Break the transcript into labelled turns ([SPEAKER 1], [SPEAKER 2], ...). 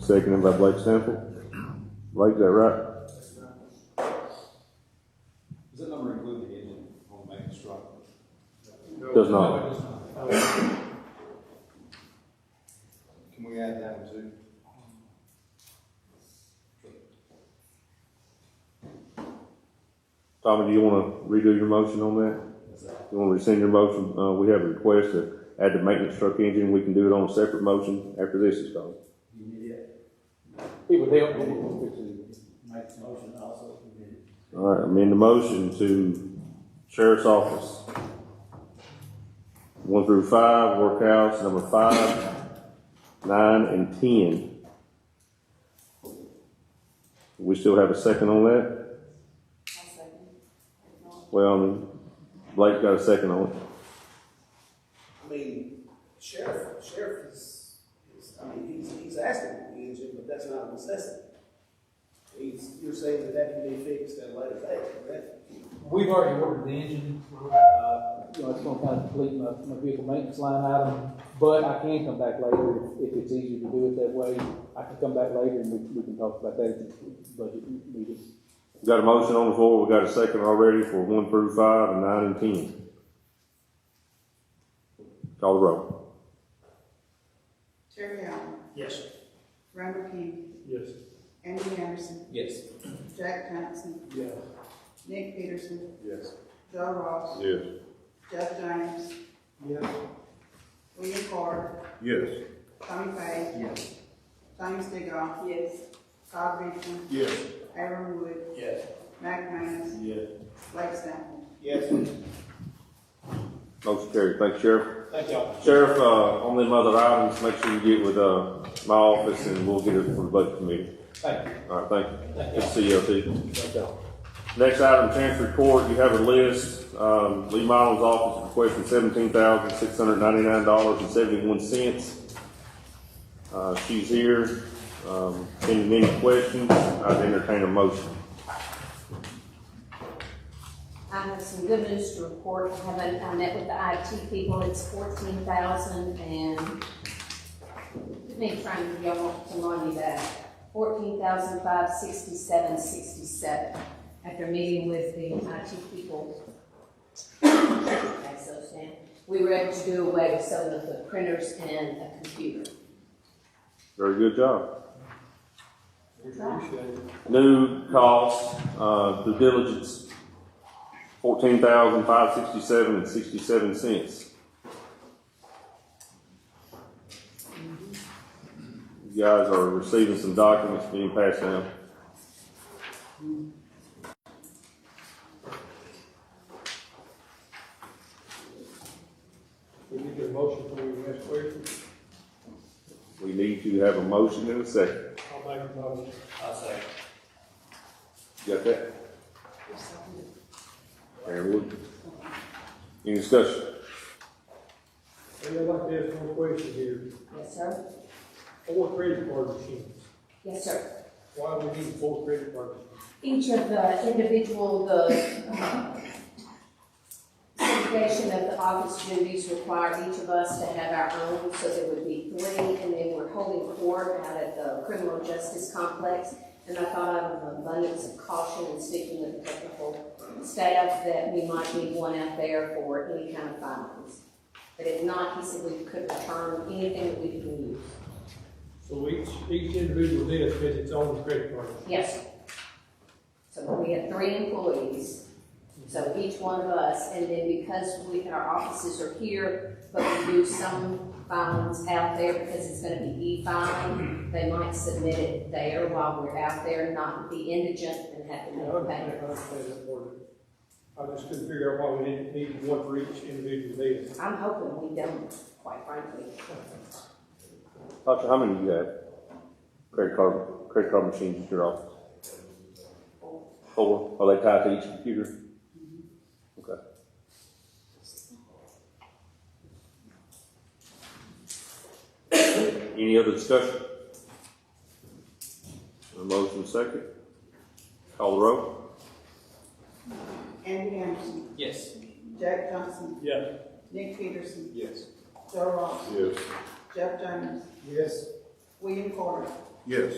[SPEAKER 1] Seconded by Blake Sample. Blake, is that right?
[SPEAKER 2] Does that number include the engine on maintenance truck?
[SPEAKER 1] Does not.
[SPEAKER 2] Can we add that one too?
[SPEAKER 1] Tommy, do you want to redo your motion on that? You want to rescind your motion? Uh, we have a request to add the maintenance truck engine. We can do it on a separate motion after this is done.
[SPEAKER 3] It would help. if
[SPEAKER 4] Make the motion also.
[SPEAKER 1] All right, amend the motion to sheriff's office. One through five, workouts number five, nine, and ten. We still have a second on that?
[SPEAKER 5] I'll second. If not,
[SPEAKER 1] Well, Blake got a second on it.
[SPEAKER 6] I mean, sheriff, sheriff is, is, I mean, he's, he's asking for the engine, but that's not a necessity. He's, you're saying that that can be fixed at a later date, correct?
[SPEAKER 3] We've already ordered the engine, uh, you know, it's gonna kind of complete my, my vehicle maintenance line item, but I can come back later if- if it's easier to do it that way. I can come back later and we, we can talk about that if it's budget needed.
[SPEAKER 1] We Got a motion on the floor, we got a second already for one through five and nine and ten. Call the roll.
[SPEAKER 5] Terry Allen,
[SPEAKER 4] Yes.
[SPEAKER 5] Robert King,
[SPEAKER 4] Yes.
[SPEAKER 5] Andy Anderson,
[SPEAKER 4] Yes.
[SPEAKER 5] Jack Johnson,
[SPEAKER 4] Yeah.
[SPEAKER 5] Nick Peterson,
[SPEAKER 2] Yes.
[SPEAKER 5] Joe Ross,
[SPEAKER 1] Yes.
[SPEAKER 5] Jeff James,
[SPEAKER 4] Yeah.
[SPEAKER 5] William Carter,
[SPEAKER 1] Yes.
[SPEAKER 5] Tommy Page,
[SPEAKER 4] Yes.
[SPEAKER 5] Tommy Stigall. Yes. Todd Beechman,
[SPEAKER 2] Yes.
[SPEAKER 5] Aaron Wood,
[SPEAKER 4] Yes.
[SPEAKER 5] Mac Minus,
[SPEAKER 2] Yes.
[SPEAKER 5] Blake Sample.
[SPEAKER 2] Yes.
[SPEAKER 1] Motion carried, thank you, Sheriff.
[SPEAKER 2] Thank y'all.
[SPEAKER 1] Sheriff, uh, on them other items, make sure you get with, uh, my office and we'll get it for the budget committee.
[SPEAKER 2] Thank you.
[SPEAKER 1] All right, thank you. Good to see you, LT. Next item, Chancery Court, you have a list, um, Lee Miles' office requesting seventeen thousand, six hundred ninety-nine dollars and seventy-one cents. Uh, she's here, um, any, any questions, I'd entertain a motion.
[SPEAKER 7] I have some good news to report. I haven't, I met with the IT people. It's fourteen thousand and, let me try and give y'all to money that. Fourteen thousand five sixty-seven sixty-seven after meeting with the IT people. That's so sad. We were able to do away with some of the printers and a computer.
[SPEAKER 1] Very good job.
[SPEAKER 4] Appreciate it.
[SPEAKER 1] New cost, uh, due diligence, fourteen thousand five sixty-seven and sixty-seven cents. You guys are receiving some documents being passed down.
[SPEAKER 4] We need to get a motion for your next question.
[SPEAKER 1] We need to have a motion in a second.
[SPEAKER 4] I'll make a motion. I'll say.
[SPEAKER 1] You Got that? Aaron Wood. Any discussion?
[SPEAKER 4] Hey, I'd like to ask one question here.
[SPEAKER 7] Yes, sir?
[SPEAKER 4] Four credit card machines.
[SPEAKER 7] Yes, sir.
[SPEAKER 4] Why do we need four credit card machines?
[SPEAKER 7] each of the individual, the uh, segregation of the office duties required each of us to have our own, so there would be three, and then we're holding court out at the criminal justice complex. And I thought out of abundance of caution and speaking with the technical staff that we might need one out there for any kind of findings. But if not, he said we could return anything that we can use.
[SPEAKER 4] So each, each individual list has its own credit card.
[SPEAKER 7] Yes. So we have three employees, so each one of us, and then because we, our offices are here, but we do some filings out there because it's gonna be e-filing, they might submit it there while we're out there, not be indigent and have to
[SPEAKER 4] I
[SPEAKER 7] make a payment.
[SPEAKER 4] understand, I understand that part of it. I just couldn't figure out why we didn't need one for each individual list.
[SPEAKER 7] I'm hoping we don't, quite frankly.
[SPEAKER 1] Doctor, how many you have? Credit card, credit card machines at your office? Four, are they tied to each computer? Okay. Any other discussion? A motion second. Call the roll.
[SPEAKER 5] Andy Anderson,
[SPEAKER 4] Yes.
[SPEAKER 5] Jack Johnson,
[SPEAKER 4] Yes.
[SPEAKER 5] Nick Peterson,
[SPEAKER 2] Yes.
[SPEAKER 5] Joe Ross,
[SPEAKER 1] Yes.
[SPEAKER 5] Jeff James,
[SPEAKER 4] Yes.
[SPEAKER 5] William Carter,
[SPEAKER 1] Yes.